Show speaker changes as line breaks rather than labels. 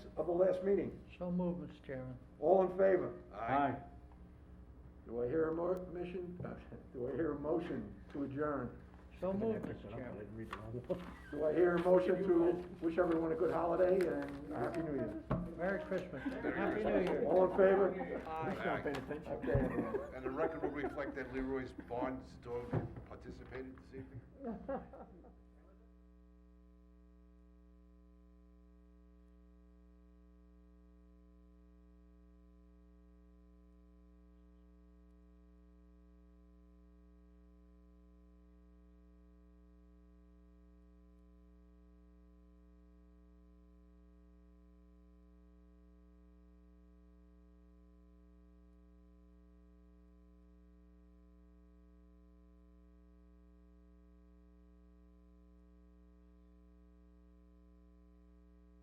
the last meeting.
So move, Mr. Chairman.
All in favor? Do I hear a mo- mission, do I hear a motion to adjourn?
So move, Mr. Chairman.
Do I hear a motion to wish everyone a good holiday and a happy new year?
Merry Christmas. Happy New Year.
All in favor?
Aye.
Okay, everyone.
And the record will reflect that Leroy's Barnes dog participated this evening?